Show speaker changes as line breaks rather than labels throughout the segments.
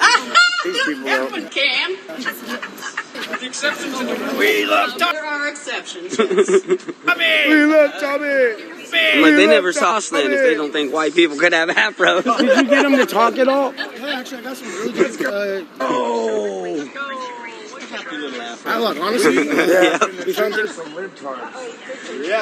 Happened, Cam.
The exceptions in the rule.
We love Tommy.
There are exceptions, yes.
We love Tommy.
I'm like, they never saw Slant if they don't think white people could have afros.
Did you get him to talk at all?
Hey, actually, I got some really good. Uh,
Oh.
I look, honestly,
Yeah.
something-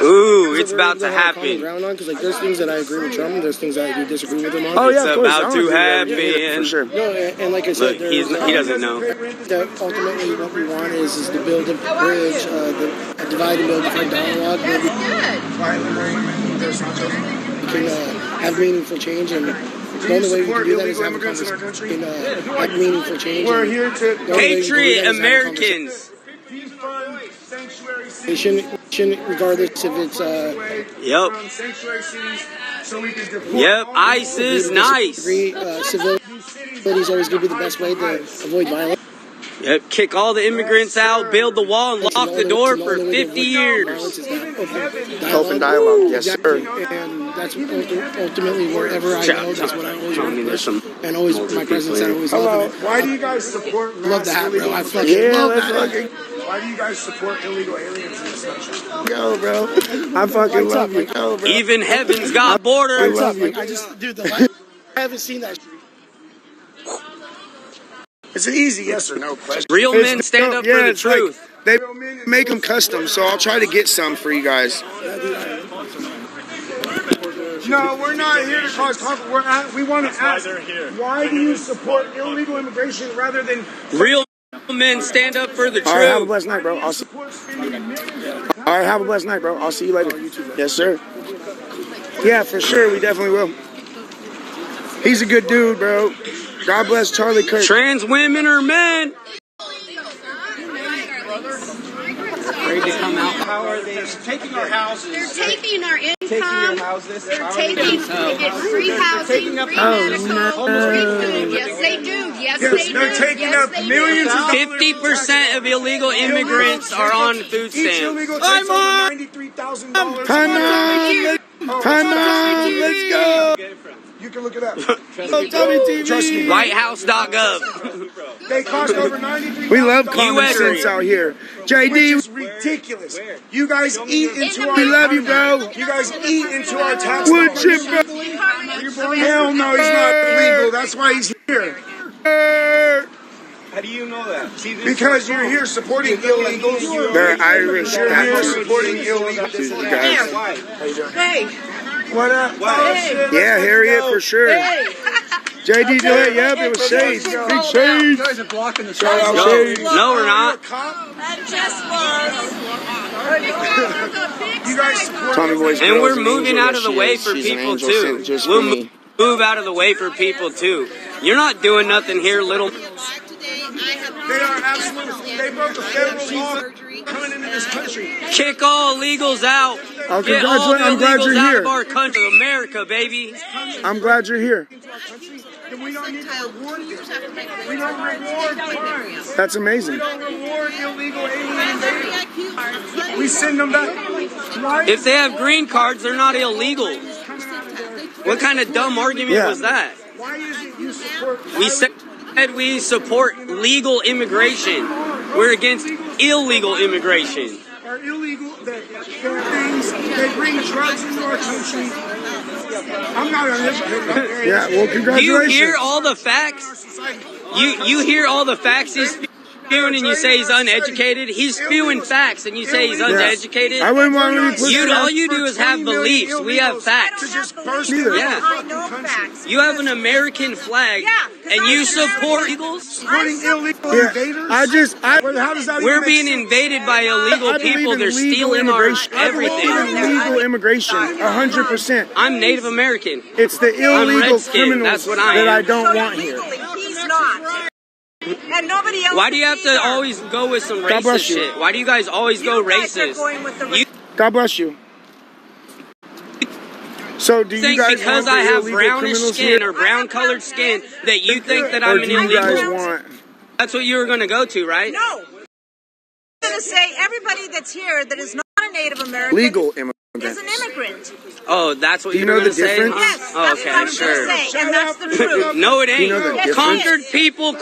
Ooh, it's
we're
about to
gonna have a common
happen.
Ground on, 'cause, like, there's things that I agree with Trump, and there's things that I disagree with him on.
Oh yeah,
It's
of course.
about
I
to
don't think he-
happen.
for sure.
No, and, and like I
Look,
said,
he's,
there's,
he doesn't know.
that ultimately what we want is is to build a bridge, uh, the, a divide and build a different dialogue. Where we can uh, have meaningful change, and the only way we can do that is have a
immigrants in our
conversation. and, uh, have meaningful change.
We're
and
here
the
to.
only way we can do
Patriot
that is have a
Americans.
Defund sanctuary cities.
conversation, Regardless if it's uh,
Yep.
From sanctuary cities, so we can deploy
Yep,
all these
ICE is nice.
agree, uh, civility
new cities
is always going to be the best way to
ICE.
avoid violence.
Yep, kick all the immigrants out, build the wall, and lock the door for 50 years.
Open
Open
dialogue,
dialogue,
yes,
yes,
sir. And that's ulti- ultimately wherever I go, that's what I always
I
want
mean,
to
there's
push.
some
And always,
older
my presence, I
people
always
Hello.
love it.
Why do you guys support mass
Love the hat, bro.
illegal
I
aliens?
fucking
Yeah,
love
let's
that.
fucking- Why do you guys support illegal aliens in this country?
Yo, bro. I fucking
Lights up,
love you.
like-
Yo, bro.
Even heaven's got
What's
borders.
up? Like, I just, dude, the light, I haven't seen that.
It's an easy yes or no question.
Real men stand up for the
it's like
truth.
they make them custom, so I'll try to get some for you guys.
No, we're not here to cause conflict. We're at, we want to ask, why do you support illegal immigration rather than
Real men stand up for the
All right, have a
truth.
blessed night, bro. I'll see.
support spending millions?
All right, have a blessed night, bro. I'll see you later. Yes, sir. Yeah, for sure. We definitely will. He's a good dude, bro. God bless Charlie Kirk.
Trans women are men.
How are they taking our
They're
houses?
taking our
Taking our
income.
houses.
They're
How are they
taking, they get free housing, free medical, free food. Yes, they do.
Yes,
Yes, they do.
they're taking
Yes,
up
they do.
millions of dollars.
50% of illegal immigrants are on food
Each
stamps.
illegal takes over ninety-three thousand dollars.
Time on, let- time on, let's go.
You can look it up.
Trust me.
WhiteHouse.gov.
They cost over ninety-three.
We love common
USA.
sense out here.
Which is
JD,
ridiculous. You guys eat into
the
our.
We
love you, bro.
You guys eat into our tax
would
dollars.
you, bro?
Hell no, he's not legal. That's why he's here.
How do you know that? See, this-
Because you're here supporting illegals.
They're Irish.
You're here
That's-
supporting illegals.
Jesus, guys.
Why?
Hey,
What up? Oh, shit.
Yeah, Harriet for sure.
hey.
JD Delay, yep, it was Shades. Big Shades.
guys are blocking the
Shout out
No,
Shades.
no, we're not.
That just was.
You guys support
Tommy Boy's
And
girl
we're
is an
moving
angel.
out of the
Yes,
way
she
for
is. She's an
people
angel
too.
sent just
We'll
for
mo-
me.
move out of the way for people too. You're not doing nothing here, little.
They are absolutely. They broke the federal law coming into this country.
Kick all illegals out.
Oh,
Get all the
congratulations. I'm glad
illegals
you're
out of
here.
our country, America, baby.
I'm glad you're here.
And we don't need to reward them. We don't reward crime.
That's
We
amazing.
don't reward illegal alien invaders. We send them back. Why
If they have green cards, they're not illegal. What kind of dumb argument
Yeah.
was that?
Why is it you support?
We said we support legal immigration. We're against illegal immigration.
are illegal, that there are things, they bring drugs into our country. I'm not a hypocrite. I'm very-
Yeah, well,
Do you hear
congratulations.
all the facts? You you hear all the facts he's spewing and you say he's uneducated? He's spewing facts and you say he's uneducated?
I wouldn't want to be
You
pushed
don't- all
around.
you do is have beliefs. We have facts.
To just burst
Neither.
into
Yeah.
the
I
fucking
know
country.
facts.
You have an American flag
Yeah, 'cause
and
I
you
was an
support
American.
eagles?
Supporting illegal
Yeah,
invaders.
I just, I,
Well, how does that
We're
even make
being
sense?
invaded by
I
illegal
believe
people.
in
They're
legal
stealing our
immigration. I believe
everything.
in legal immigration, a hundred percent.
I'm Native American.
It's the illegal
Redskin,
criminals
that's what I
that
am.
I don't want here.
He's not. And nobody else.
Why do you have to
either.
always go with some
God
racist
bless you.
shit? Why do you guys always go
You guys are
racist?
going with the
You
God bless you. So do you
think
guys
because
want the
I have
illegal
brownish
criminals
skin
here,
or brown colored skin that you think that
or
I'm
do
an
you guys
illegal?
want?
That's what you were going to go to, right?
No. I'm going to say everybody that's here that is not a Native American
legal immigrants.
is an immigrant.
Oh, that's what
Do
you
you
were
know
going to
the
say?
difference?
huh?
Yes,
Oh,
that's what I
okay,
was going to
sure.
say, and that's the truth.
No, it ain't.
know the
Conquered
difference?
people